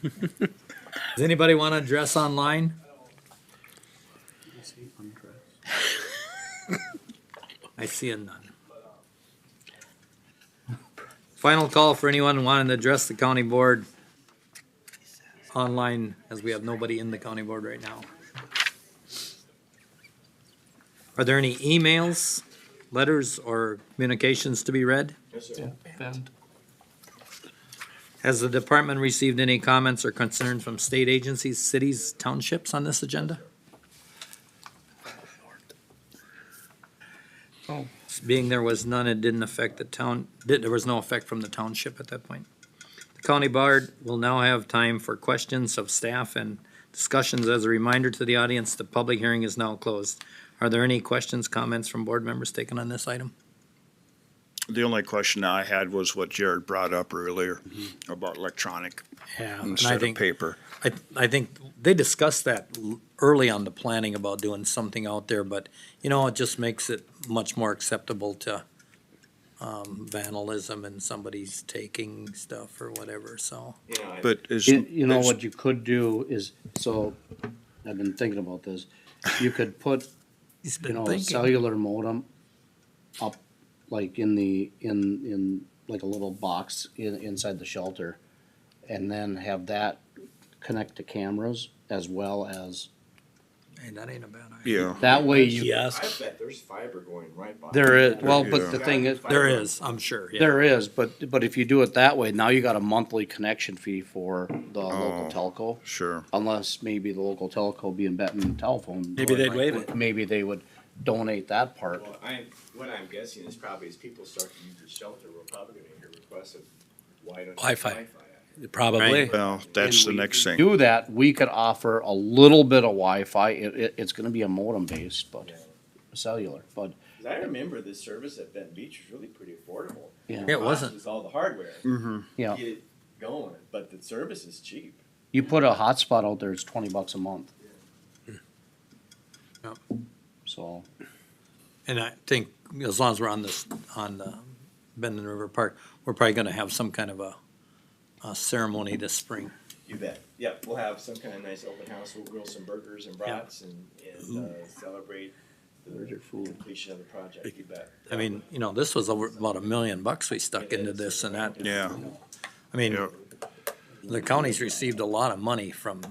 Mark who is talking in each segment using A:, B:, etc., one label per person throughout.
A: Does anybody want to address online? I see a none. Final call for anyone wanting to address the county board online, as we have nobody in the county board right now. Are there any emails, letters, or communications to be read? Has the department received any comments or concerns from state agencies, cities, townships on this agenda?
B: Oh.
A: Being there was none, it didn't affect the town, did- there was no effect from the township at that point. The county board will now have time for questions of staff and discussions. As a reminder to the audience, the public hearing is now closed. Are there any questions, comments from board members taken on this item?
B: The only question I had was what Jared brought up earlier
C: Mm-hmm.
B: about electronic
A: Yeah. And I
B: instead of
A: think
B: paper.
A: I, I think they discussed that l- early on the planning about doing something out there, but, you know, it just makes it much more acceptable to um, vandalism and somebody's taking stuff or whatever, so.
B: But is,
C: You, you know
B: is-
C: what you could do is, so, I've been thinking about this, you could put,
A: He's
C: you
A: been
C: know, a
A: thinking.
C: cellular modem up, like in the, in, in, like a little box in, inside the shelter, and then have that connect to cameras as well as,
A: Hey, that ain't a bad idea.
B: yeah,
C: that way you,
A: Yes,
D: I bet there's fiber going right by.
C: there is, well,
B: Yeah.
C: but the thing is,
A: there is, I'm sure, yeah.
C: there is, but, but if you do it that way, now you got a monthly connection fee for the
B: Oh.
C: local telco.
B: sure.
C: unless maybe the local telco being Benton telephone.
E: Maybe they'd waive
C: it. Maybe they would donate that part.
D: Well, I, what I'm guessing is probably as people start to use the shelter, we're probably gonna hear requests of, why don't you
E: Wi-Fi.
D: Wi-Fi?
E: Probably.
B: Well, that's the next thing.
C: Do that, we could offer a little bit of Wi-Fi. It, it, it's gonna be a modem based, but cellular, but
D: 'Cause I remember this service at Benton Beach was really pretty affordable.
C: Yeah. Mm-hmm.
A: It wasn't.
D: Cost was all the hardware.
C: yeah,
D: Get it going, but the service is cheap.
C: you put a hotspot out there, it's twenty bucks a month.
A: Yep.
C: So,
A: And I think as long as we're on this, on the Bend and River Park, we're probably gonna have some kind of a, a ceremony this spring.
D: You bet. Yep, we'll have some kind of nice open house. We'll grill some burgers and brats and, and, uh, celebrate the completion of the project. You bet.
A: I mean, you know, this was over about a million bucks we stuck into this and that.
B: Yeah,
A: I mean,
B: yeah,
A: the county's received a lot of money from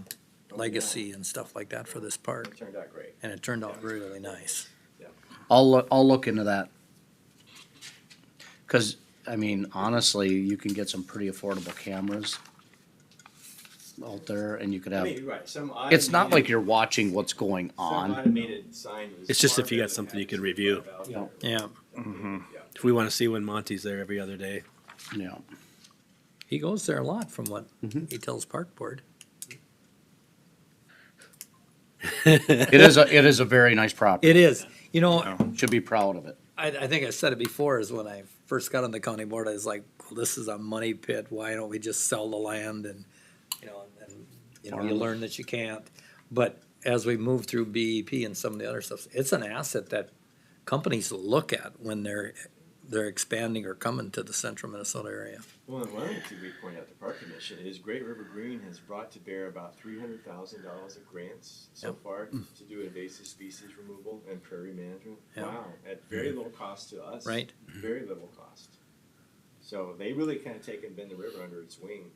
A: legacy and stuff like that for this
D: It
A: park,
D: turned out great.
A: and it turned out really nice.
C: I'll, loo- I'll look into that. Cause, I mean, honestly, you can get some pretty affordable cameras out there and you could
D: I
C: have
D: mean, you're right, some
C: It's not
D: automated-
C: like you're watching what's going
D: Some
C: on.
D: automated sign was
E: It's just if
D: far
E: you got
D: better than
E: something you
D: having
E: could review.
D: something about
C: Yeah.
D: it.
A: Yeah,
E: If we want to see when Monty's there every other day.
C: Yeah.
A: he goes there a lot from what he tells park board.
C: It is a, it is a very nice property.
A: It is, you know,
B: Yeah.
C: Should be proud of it.
A: I, I think I said it before, is when I first got on the county board, I was like, well, this is a money pit, why don't we just sell the land and, you know, and, and, you know, you
C: Farm.
A: learn that you can't. But as we move through BEP and some of the other stuff, it's an asset that companies look at when they're, they're expanding or coming to the central Minnesota area.
D: Well, and one of the things we point out to Park Commission is Great River Green has brought to bear about three hundred thousand dollars of grants so
A: Yep.
D: far to do invasive species removal and prairie management.
A: Yeah.
D: Wow, at
C: Mm-hmm.
D: very little cost to us. Mm-hmm.
A: Right.
D: Very little cost. So they really kind of taken Bend the River under its wing,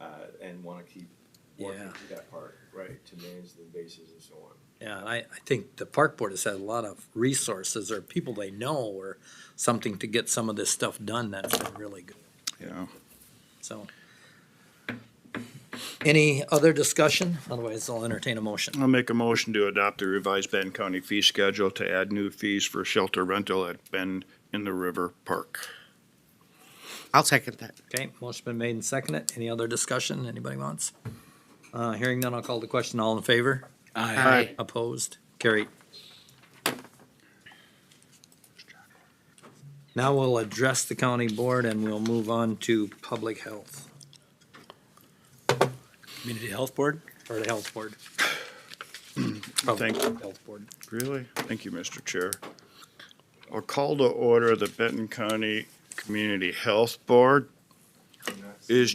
D: uh, and want to keep working
A: Yeah.
D: through that park, right, to manage the invasives and so on.
A: Yeah, and I, I think the park board has had a lot of resources or people they know or something to get some of this stuff done. That's been really good,
B: yeah.
A: so. Any other discussion? Otherwise, I'll entertain a motion.
B: I'll make a motion to adopt the revised Bend County fee schedule to add new fees for shelter rental at Bend in the River Park.
F: I'll second that.
A: Okay, motion been made and seconded. Any other discussion anybody wants? Uh, hearing none, I'll call the question. All in favor?
F: Aye.
A: Opposed? Carried. Now we'll address the county board and we'll move on to public health,
E: Community Health Board?
A: or the health board.
B: Thank-
A: Health board.
B: Really? Thank you, Mr. Chair. I'll call to order the Benton County Community Health Board. Is